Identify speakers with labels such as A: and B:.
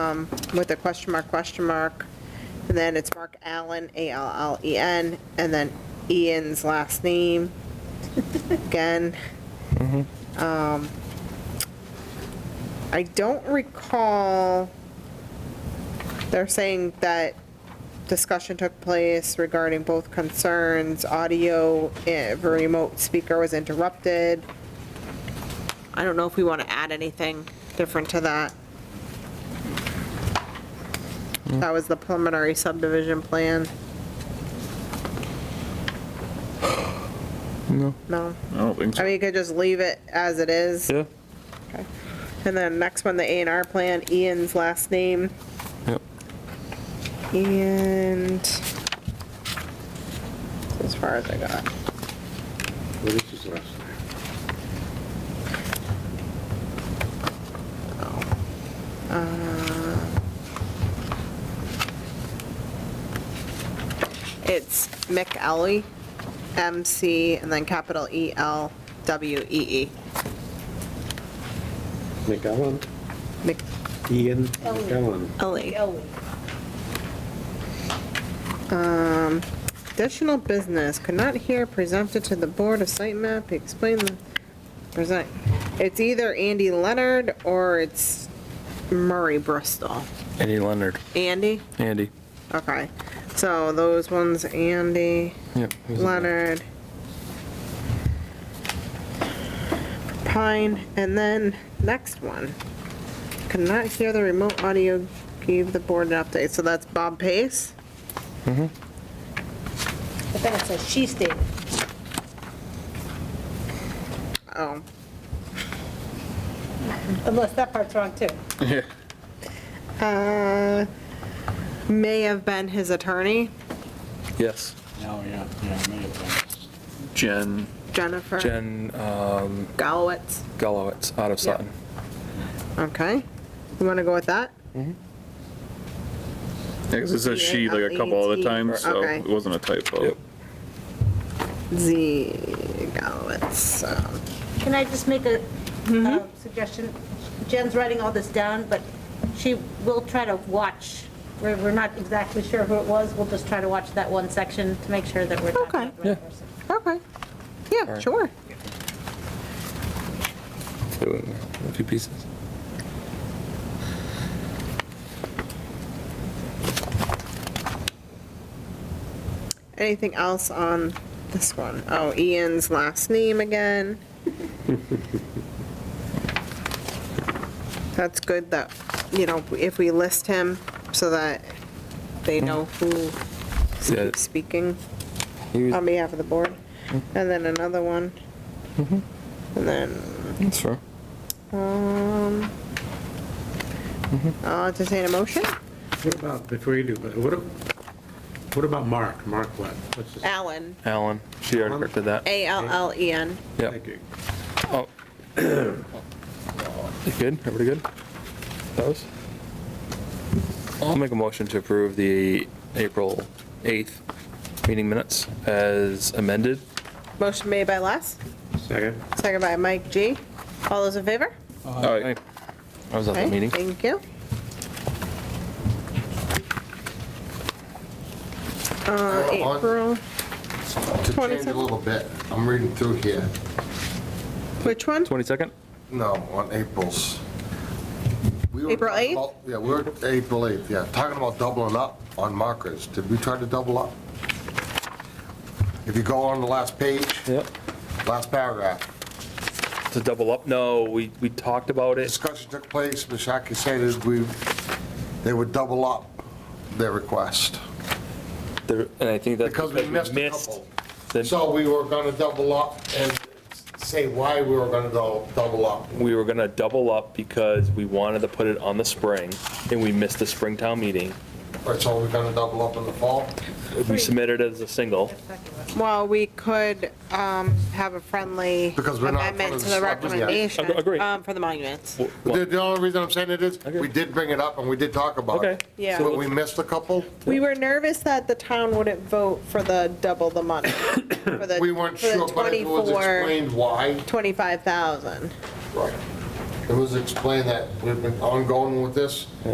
A: um, with a question mark, question mark, and then it's Mark Allen, A-L-L-E-N, E and then Ian's last name, again. Um, I don't recall, they're saying that discussion took place regarding both concerns, audio of a remote speaker was interrupted. I don't know if we want to add anything different to that. That was the preliminary subdivision plan.
B: No.
A: No?
C: I don't think
A: I mean,
C: so.
A: you could just leave it as it is.
B: Yeah,
A: And then next one, the A and R plan, Ian's last name,
B: yep.
A: and as far as I got.
D: What is his last name?
A: Uh, It's McElwee, M-C, and then capital E E-L-W-E-E.
D: McAllen? Ian McAllen.
A: McElwee.
E: Ellie.
A: Um, Additional business, could not hear presented to the board a site map, explain the, present. It's either Andy Leonard or it's Murray Bristol.
B: Andy Leonard.
A: Andy?
B: Andy.
A: Okay, so those ones, Andy.
B: Yep. he was in there.
A: Leonard. Pine, and then next one. Could not hear the remote audio, gave the board an update, so that's Bob Pace?
E: I think it says she stated.
A: Oh,
E: Unless that part's wrong too.
C: Yeah.
A: uh, may have been his attorney,
B: Yes.
D: Oh, yeah, yeah, may have
C: Jen,
A: Jennifer
B: Jen um,
A: Gallowitz.
B: Gallowitz out of Sutton.
A: Okay, you wanna go with that?
C: because it says she like a couple other times, so
A: Okay.
C: it wasn't a typo.
B: Yep.
A: Z Gallowitz, um,
E: Can I just make a uh, suggestion? Jen's writing all this down, but she will try to watch. We're we're not exactly sure who it was. We'll just try to watch that one section to make sure that we're talking about
A: Okay.
E: the
B: Yeah.
E: right person.
A: okay, yeah,
B: right.
A: sure.
B: A few pieces.
A: Anything else on this one? Oh, Ian's last name again. That's good that, you know, if we list him so that they know who
B: Yeah.
A: keeps speaking
B: He was-
A: on behalf of the board. And then another one.
B: Mm-hmm.
A: And then,
B: That's fair.
A: um, I'll entertain a motion.
D: What about, before you do, what, a- what about Mark? Mark what? What's his?
A: Allen,
B: Alan. She already corrected that.
A: A-L-L-E-N.
B: Yep.
D: Thank you.
B: Oh. You good? Everybody good? Those? I'll make a motion to approve the April 8th meeting minutes as amended.
A: Motion made by Les,
D: Second?
A: second by Mike G. All those in favor?
C: All right.
B: I was at the
A: Okay,
B: meeting.
A: Thank you. Uh,
F: on.
A: April,
F: To change
A: 27.
F: a little bit, I'm reading through here.
A: which one?
B: 22nd?
F: No, on April's. We were
A: April
F: talking
A: 8th?
F: about- Yeah, we were, April 8th, yeah, talking about doubling up on markers. Did we try to double up? If you go on the last page,
B: Yep.
F: last paragraph,
B: To double up? No, we, we talked about it.
F: discussion took place, Mashaki said that we, they would double up their request.
B: There- And I think that's
F: Because we missed a couple.
B: the-
F: So we were gonna double up and say why we were gonna dou- double up.
B: we were gonna double up because we wanted to put it on the spring, and we missed the spring town meeting.
F: Or so we're gonna double up in the fall?
B: We submitted it as a single.
A: Well, we could um, have a friendly
F: Because we're not in
A: amendment
F: front
A: to
F: of
A: the
F: the selectmen yet.
A: recommendation.
B: Ag- agree.
A: um, For the monuments.
F: The, the only reason I'm saying it is,
B: Okay.
F: we did bring it up and we did talk about
B: Okay.
F: it.
A: Yeah.
F: But we missed a couple.
A: We were nervous that the town wouldn't vote for the double the money, for the
F: We weren't
A: for the
F: sure, but it was
A: 24,
F: explained why.
A: 25,000.
F: Right. It was explained that we've been ongoing with this.